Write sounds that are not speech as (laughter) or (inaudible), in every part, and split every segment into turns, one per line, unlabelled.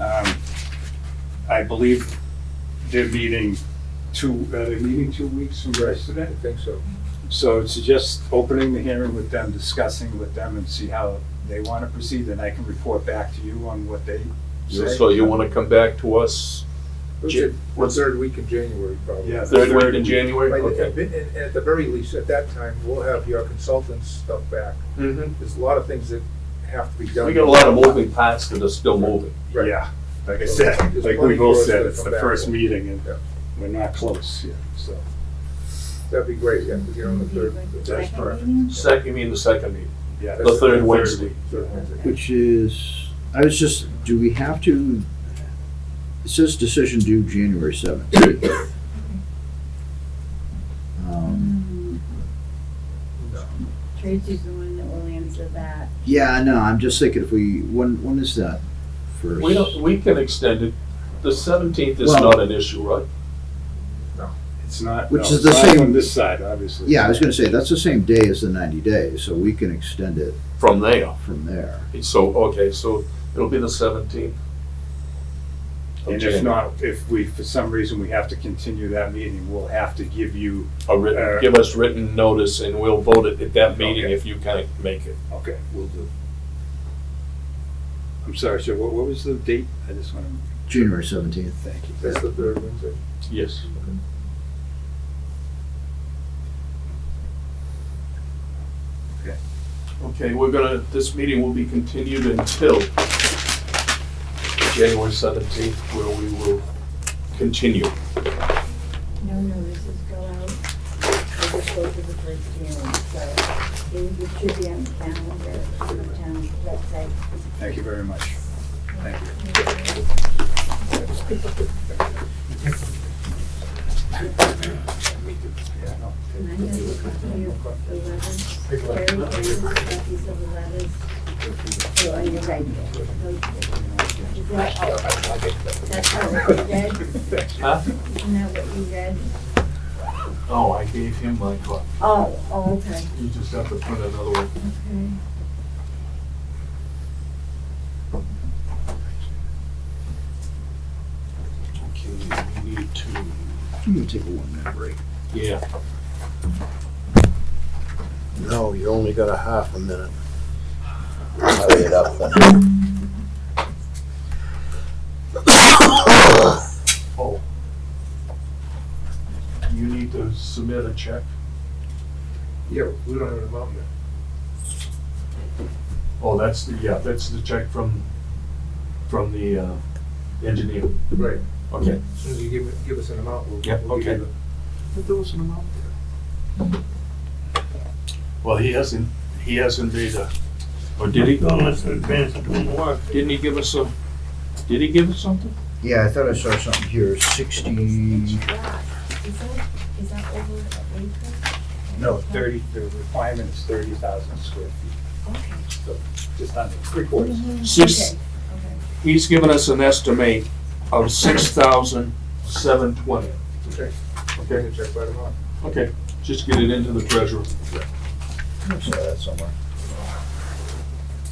Um, I believe they're meeting two, uh, they're meeting two weeks from
I
yesterday.
think so.
So it's just opening the hearing with them, discussing with them and see how they want to proceed. And I can report back to you on what they
So
say.
so you wanna come back to us
It was
Jan-
in the third week in January, probably.
Yeah.
third week in
By
January?
the-
Okay.
And and at the very least, at that time, we'll have your consultant's stuff back.
Mhm.
Mm-hmm.
There's a lot of things that have to be done.
We got a lot of moving parts that are still moving.
Right.
Yeah, like I said, like we both said, it's the first meeting and
Yeah.
we're not close yet, so.
That'd be great, yeah, to get on the third.
That's perfect.
Second, you mean the second meeting?
yeah.
The third Wednesday.
third Wednesday.
Which is, I was just, do we have to, it says decision due January seventh. (coughs) Um,
No.
Tracy's the one that will answer that.
Yeah, no, I'm just thinking if we, when, when is that first?
We don't, we can extend it. The seventeenth is
Well-
not an issue, right?
It's not, no,
Which
it's
is the
not on
same-
this side, obviously.
Yeah, I was gonna say, that's the same day as the ninety days, so we can extend it
From there.
from there.
So, okay, so it'll be the seventeenth.
And if not, if we, for some reason, we have to continue that meeting, we'll have to give you,
A written,
Uh,
give us written notice and we'll vote it at that meeting
Okay.
if you can't make it.
okay, we'll do. I'm sorry, sir, what, what was the date? I just want to,
January seventeenth.
thank you.
That's the third Wednesday.
Yes.
Okay.
Okay, we're gonna, this meeting will be continued until January seventeenth, where we will continue.
No notices go out. I just go to the first hearing, so it it should be on the calendar, on the town website.
Thank you very much. Thank you.
And I'm gonna look up the letters, Carrie brings copies of the letters. So are you right? Is that, that's not what you read?
Huh?
Isn't that what you read?
Oh, I gave him my card.
Oh, oh, okay,
You just have to print another one.
okay.
Okay, we need to,
I'm gonna take a one minute break.
yeah.
No, you only got a half a minute. Hurry it up then.
Oh. You need to submit a check.
Yeah, we don't have an amount yet.
Oh, that's the, yeah, that's the check from, from the uh, engineer.
Right.
Okay.
As soon as you give, it- give us an amount, we'll.
Yeah,
we'll give
okay.
you
But there was an amount there. Well, he hasn't, he hasn't made a, or did he?
Well, it's an advance of doing the work.
Didn't he give us a, did he give us something?
Yeah, I thought I saw something here, sixty,
Wow. Is that, is that over April?
No, thirty, the requirement is thirty thousand square feet,
Okay.
so just under three quarters.
Six,
Okay, okay.
he's given us an estimate of six thousand seven twenty.
it. Okay,
Okay,
okay, check that amount.
okay, just get it into the treasurer.
I saw that somewhere.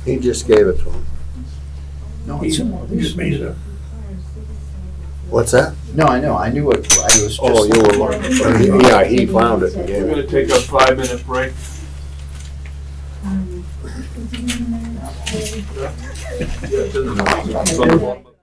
He just gave it to him.
No,
He
it's in
he just made it up.
What's that?
No, I know, I knew it, I was just.
Oh, you were looking for, yeah, he found it and
We're
gave
gonna
it.
take a five-minute break.
Um,
Yeah, it doesn't matter. It's on the-